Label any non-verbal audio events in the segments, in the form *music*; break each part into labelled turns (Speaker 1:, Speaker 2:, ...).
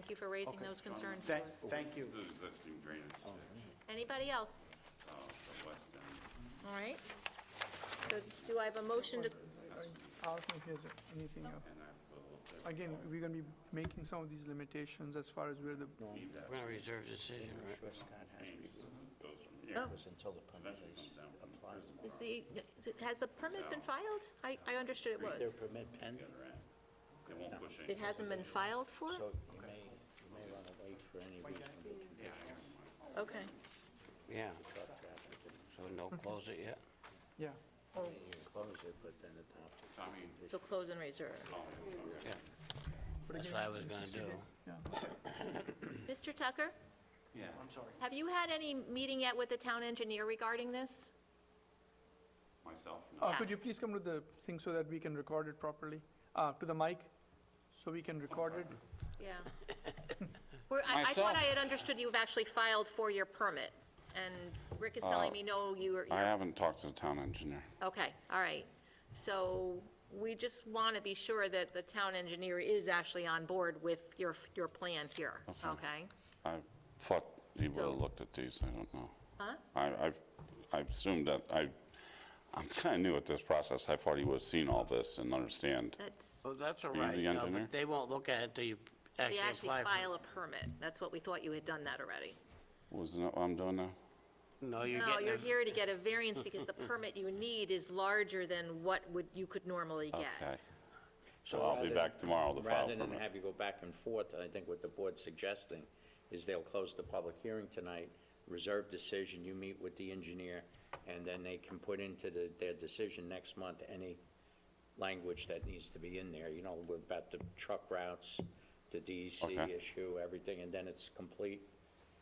Speaker 1: Thank you for raising those concerns to
Speaker 2: Thank,
Speaker 1: us.
Speaker 2: thank you.
Speaker 3: The existing drainage ditch,
Speaker 1: Anybody else?
Speaker 3: uh, the west end.
Speaker 1: All right. So do I have a motion to,
Speaker 4: I don't think there's anything else. Again, we're gonna be making some of these limitations as far as where the,
Speaker 5: We're going to reserve decision, right?
Speaker 6: Prescott Hatchery
Speaker 1: oh,
Speaker 6: was until the permit is applied.
Speaker 1: is the, is it- has the permit been filed? I, I understood it
Speaker 6: Is their
Speaker 1: was.
Speaker 6: permit pending?
Speaker 3: They won't push any.
Speaker 1: It hasn't been filed for?
Speaker 6: So you may, you may run away for any reasonable condition
Speaker 1: Okay.
Speaker 5: Yeah,
Speaker 6: to truck traffic. and
Speaker 5: so no close it yet?
Speaker 4: yeah.
Speaker 6: You close it, but then adopt it.
Speaker 3: Tommy,
Speaker 1: So close and reserve.
Speaker 5: Yeah.
Speaker 4: But
Speaker 5: That's
Speaker 4: again,
Speaker 5: what I was
Speaker 4: in
Speaker 5: gonna
Speaker 4: 60
Speaker 5: do.
Speaker 4: days, Yeah.
Speaker 1: Mr. Tucker,
Speaker 3: yeah,
Speaker 1: have you had any meeting yet with the town engineer regarding this?
Speaker 3: myself, no.
Speaker 4: Uh, Could you
Speaker 1: Yes.
Speaker 4: please come to the thing so that we can record it properly, Uh, to the mic, so we can record it?
Speaker 1: Yeah. We're, I, I
Speaker 3: Myself.
Speaker 1: thought I had understood you've actually filed for your permit, and Rick is telling me, no, you were,
Speaker 3: Uh, I haven't talked to the town engineer.
Speaker 1: Okay, all right. So we just want to be sure that the town engineer is actually on board with your, your plan here,
Speaker 3: Uh-huh.
Speaker 1: okay?
Speaker 3: I thought he would
Speaker 1: So-
Speaker 3: have looked at these, I don't know.
Speaker 1: Huh?
Speaker 3: I, I've, I assumed that, I, I'm *laughs* kind of new at this process, I thought he would have seen all this and understand.
Speaker 1: That's,
Speaker 5: Well, that's all
Speaker 3: You
Speaker 5: right.
Speaker 3: the
Speaker 5: no, but
Speaker 3: engineer?
Speaker 5: They won't look at it until you
Speaker 1: we
Speaker 5: actually
Speaker 1: actually
Speaker 5: apply for
Speaker 1: file a permit. That's what we thought you had done that already.
Speaker 3: Wasn't that what I'm doing now?
Speaker 5: it. No, you're
Speaker 1: No,
Speaker 5: getting
Speaker 1: you're
Speaker 5: it.
Speaker 1: here to get a variance because the permit you need is larger than what would, you could normally
Speaker 3: Okay.
Speaker 1: get.
Speaker 3: So I'll be
Speaker 6: rather-
Speaker 3: back tomorrow to file
Speaker 6: Rather than
Speaker 3: permit.
Speaker 6: have you go back and forth, I think what the board's suggesting is they'll close the public hearing tonight, reserve decision, you meet with the engineer, and then they can put into the, their decision next month any language that needs to be in there, you know, about the truck routes, the DEC
Speaker 3: Okay.
Speaker 6: issue, everything, and then it's complete,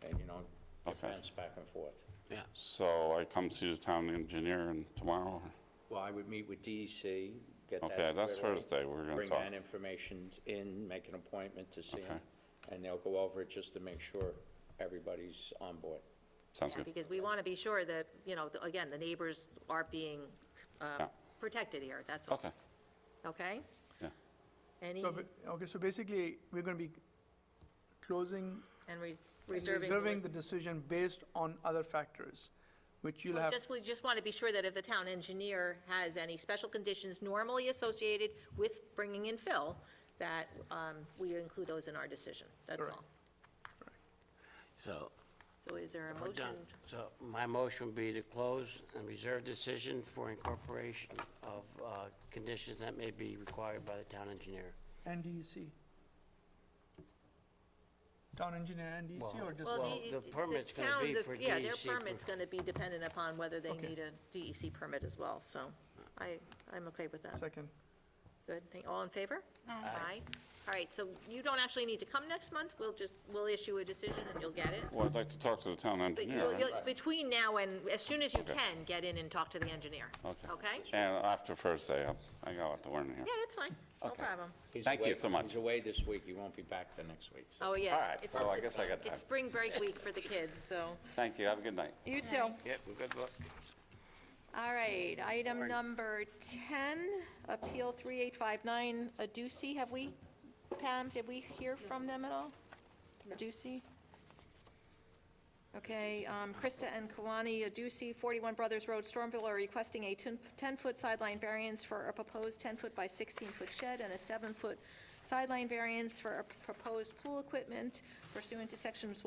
Speaker 6: and, you know, it
Speaker 3: Okay.
Speaker 6: bounce back and forth.
Speaker 5: Yeah,
Speaker 3: So I come see the town engineer and tomorrow? or-
Speaker 6: Well, I would meet with DEC, get that.
Speaker 3: Okay, that's
Speaker 6: squared away,
Speaker 3: Thursday, we're gonna
Speaker 6: Bring
Speaker 3: talk.
Speaker 6: that information in, make an appointment to see them,
Speaker 3: Okay.
Speaker 6: and they'll go over it just to make sure everybody's on board.
Speaker 3: Sounds
Speaker 1: Yeah,
Speaker 3: good.
Speaker 1: Because we want to be sure that, you know, the- again, the neighbors are being uh,
Speaker 3: Yeah.
Speaker 1: protected here, that's all.
Speaker 3: Okay,
Speaker 1: Okay?
Speaker 3: yeah.
Speaker 1: Any,
Speaker 4: So, ba- Okay, so basically, we're gonna be closing,
Speaker 1: and res- reserving.
Speaker 4: reserving the decision based on other factors, which you'll
Speaker 1: Well,
Speaker 4: have,
Speaker 1: Just, we just want to be sure that if the town engineer has any special conditions normally associated with bringing in fill, that um, we include those in our decision, that's
Speaker 4: Correct.
Speaker 1: all.
Speaker 5: so
Speaker 1: So is there a
Speaker 5: we're
Speaker 1: motion?
Speaker 5: done. So my motion would be to close and reserve decision for incorporation of uh, conditions that may be required by the town engineer.
Speaker 4: and DEC. Town engineer and DEC, or just?
Speaker 1: Well,
Speaker 5: Well, the permit's gonna
Speaker 1: town-
Speaker 5: be
Speaker 1: the-
Speaker 5: for
Speaker 1: Yeah, their
Speaker 5: DEC per-
Speaker 1: permit's going to be dependent upon whether they
Speaker 4: Okay.
Speaker 1: need a DEC permit as well, so I, I'm okay with that.
Speaker 4: Second.
Speaker 1: Good, Thank- all in favor? Aye. All right, so you don't actually need to come next month, we'll just, we'll issue a decision and you'll get it.
Speaker 3: Well, I'd like to talk to the town
Speaker 1: But
Speaker 3: engineer.
Speaker 1: you'll,
Speaker 3: right?
Speaker 1: you'll, between now and, as soon as you
Speaker 3: Okay.
Speaker 1: can, get in and talk to the engineer. Okay?
Speaker 3: And after Thursday, I'll- I got a lot to learn here.
Speaker 1: Yeah, that's fine, no
Speaker 3: Okay.
Speaker 1: problem.
Speaker 6: He's
Speaker 3: Thank you
Speaker 6: away-
Speaker 3: so much.
Speaker 6: He's away this week, he won't be back till next week, so.
Speaker 1: Oh, yeah.
Speaker 3: All
Speaker 1: it's-
Speaker 3: right,
Speaker 1: it's-
Speaker 3: well, I guess I got time.
Speaker 1: It's spring break week for the kids, so.
Speaker 3: Thank you, have a good night.
Speaker 1: You too.
Speaker 5: Yep, good luck.
Speaker 1: All right, item number 10, Appeal 3859, Aducee, have we, Pam, did we hear from them at all? Aducee? Okay, um, Krista and Kawani Aducee, 41 Brothers Road, Stormville, are requesting a 10 10-foot sideline variance for a proposed 10-foot by 16-foot shed and a 7-foot sideline variance for a proposed pool equipment pursuant to Sections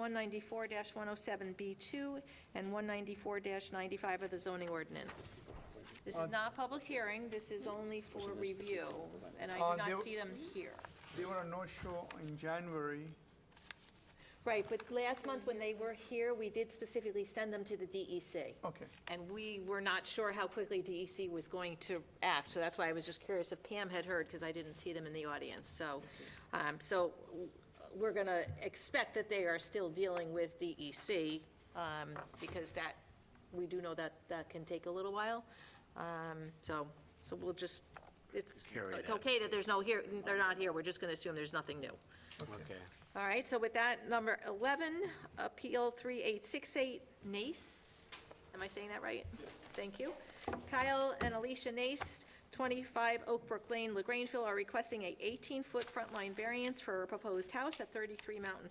Speaker 1: 194-107B2 and 194-95 of the zoning ordinance. This is not a public hearing, this is only for review, and I
Speaker 4: Uh,
Speaker 1: do
Speaker 4: there-
Speaker 1: not see them here.
Speaker 4: They were a no-show in January.
Speaker 1: Right, but last month when they were here, we did specifically send them to the E DEC.
Speaker 4: Okay.
Speaker 1: And we were not sure how quickly DEC was going to act, so that's why I was just curious if Pam had heard, because I didn't see them in the audience. So, um, so w- we're going to expect that they are still dealing with DEC, um, because that, we do know that that can take a little while. Um, So, so we'll just, it's,
Speaker 5: Carry
Speaker 1: it's
Speaker 5: that.
Speaker 1: okay that there's no here, they're not here, we're just going to assume there's nothing new.
Speaker 5: Okay.
Speaker 1: All right, so with that, number 11, Appeal 3868, Nace. Am I saying that right? Thank you. Kyle and Alicia Nace, 20 25 Oak Brook Lane, LaGrangeville, are requesting a 18-foot front line variance for a proposed house at 33 Mountain